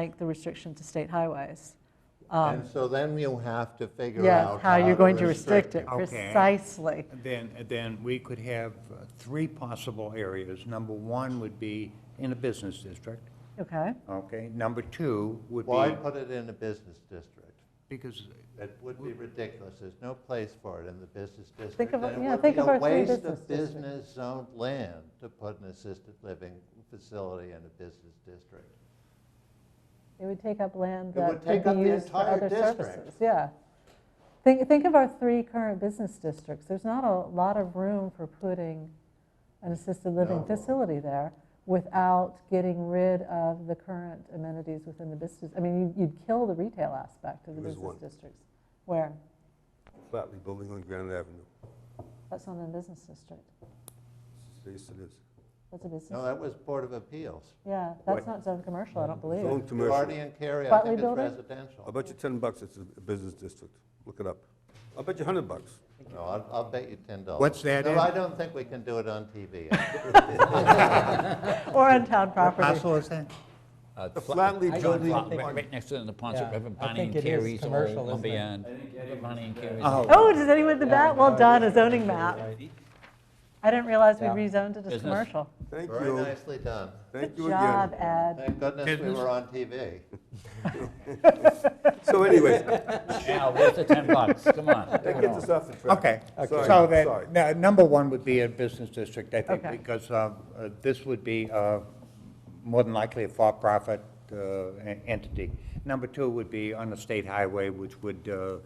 like the restriction to state highways. And so then you have to figure Yes, out. Um, how you're going to restrict it, Okay. precisely. Then, then we could have uh, three possible areas. Number one would be in a business district, Okay, okay? Number two would Why be, put it in a business district? because, It would be ridiculous. There's no place for it in the business district. Think of- and yeah, think of our three It would business be a waste districts. of business zoned land to put an assisted living facility in a business district. it would take up land It that would take could be up the used for entire other district. services. Yeah. Think, think of our three current business districts. There's not a lot of room for putting an assisted living No. facility there without getting rid of the current amenities within the business. I mean, you'd- you'd kill the retail aspect of the There is business one. districts. Where? Flatley Building on Granite Avenue. That's not a business district. They used to live. That's a business. No, that was Board of Appeals. Yeah, that's not zone commercial, I don't believe. Zone commercial. Guardian Carey, I Flatley think is Building? I'll residential. bet you 10 bucks it's a business district. Look it up. I'll bet you 100 bucks. No, I'll, I'll bet you ten dollars. What's that in? No, I don't think we can do it on TV. Or on town property. parcel is that? Uh, The Fla- Flatly I Building- thought Fla- Right next to the Ponset Yeah, River, I Bonnie and think it is Carrie's old commercial, isn't it? lumberyard. Bonnie and Carrie's. Oh, Oh, does anyone do that? Well done, a zoning map. I didn't realize we Yeah. rezoned it as Business. commercial. Thank Very you. nicely done. Thank Good you job, again. Ed. Thank goodness we were on TV. So anyways, Al, where's the 10 bucks? Come on. that gets us off the track. Okay, Sorry, so sorry. that, now, number one would be a business district, I think, Okay. because uh, uh, this would be uh, more than likely a for-profit uh, en- entity. Number two would be on a state highway, which would uh,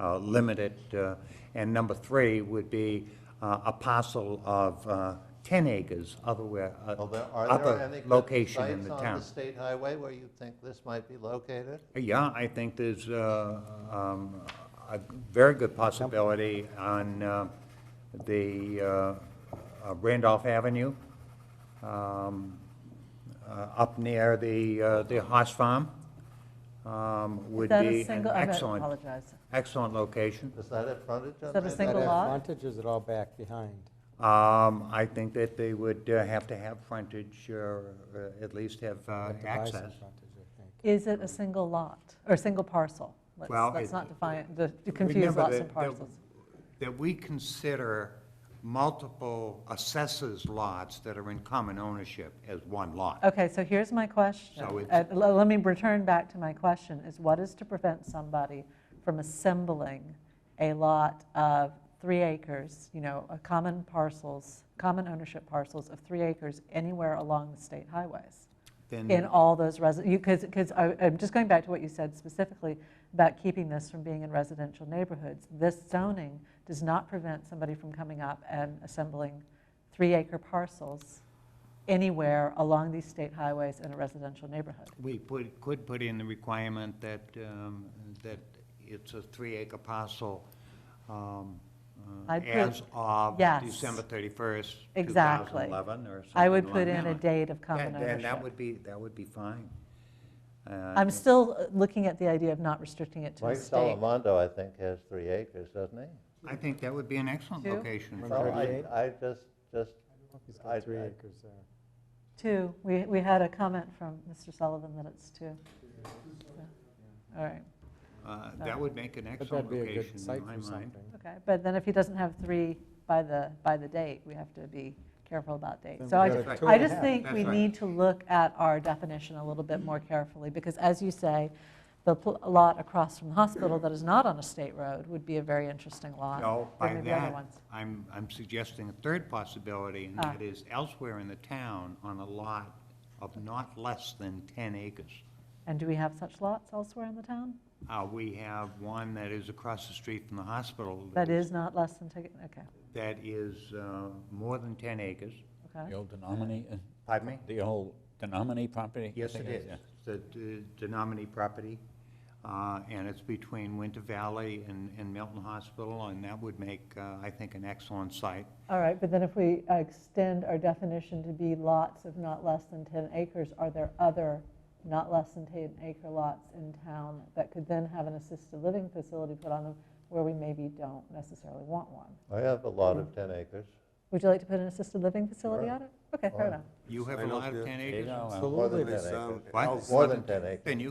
uh, limit it. uh, And number three would be uh, a parcel of uh, 10 acres otherwhere, uh, Although, are there other any good location in sites the on the town. state highway where you think this might be located? Yeah, I think there's uh, um, a very good possibility on uh, the uh, uh, Randolph Avenue, um, uh, up near the, uh, the horse farm, um, would Is that a be an single- I excellent, apologize. excellent location. Is that at frontage on Is that a Randolph? single Is that lot? Frontage or is it all back behind? Um, I think that they would uh, have to have frontage, or uh, at least have uh, Have to buy some access. frontage, I think. Is it a single lot or a single parcel? Let's, Well, let's it- not define, the- to confuse Remember lots that- and that- parcels. That we consider multiple assessors lots that are in common ownership as one lot. Okay, so here's my question. So it's- Uh, l- Let me return back to my question, is what is to prevent somebody from assembling a lot of three acres, you know, a common parcels, common ownership parcels of three acres anywhere along the state highways? Then- in all those residents, because, because I'm just going back to what you said specifically about keeping this from being in residential neighborhoods. This zoning does not prevent somebody from coming up and assembling three-acre parcels anywhere along these state highways in a residential neighborhood. We put, could put in the requirement that, um, that it's a three-acre parcel um, uh, I'd put- as of Yes. December 31st, Exactly. 2011, or something I would along put that in a line. date of common Then- Then that ownership. would be, that would be fine. Uh, I'm still uh, looking at the idea of not restricting it to the Mike state. Salamondo, I think, has three acres, doesn't he? I think that would be an excellent Two? location. One Well, I, 38? I just, just, He's I- got three I- acres there. Two, we, we had a comment from Mr. Sullivan that it's two. All right. Uh, That would make an But excellent that'd be a location good site in my for mind. something. Okay, but then if he doesn't have three by the, by the date, we have to be careful about Then dates. So we I, got ju- a That's two I and a just half. think That's we right. need to look at our definition a little bit more carefully, because as you say, the pl- lot across from the hospital that is not on a state road would be a very interesting lot. No, There Oh, by may be other that, ones. I'm, I'm suggesting a third possibility, and Ah. that is elsewhere in the town on a lot of not less than 10 acres. And do we have such lots elsewhere in the town? Uh, We have one that is across the street from the hospital. That is not less than, take- okay, That is uh, more than 10 acres. okay. The old denominator, Pardon me? the old denominator property? I Yes, it think is. yeah. The the Denominee property, uh, and it's between Winter Valley and and Milton Hospital, and that would make, uh, I think, an excellent site. All right, but then if we uh, extend our definition to be lots of not less than 10 acres, are there other not less than 10 acre lots in town that could then have an assisted living facility put on them where we maybe don't necessarily want one? I have a lot of ten acres. Would you like to put an assisted living facility Sure. on it? Okay, fair enough. You have a Sign up lot of there. 10 You acres? know, uh, More Absolutely. than Absolutely. this, um, What? Al's- More than 10 acres. Then you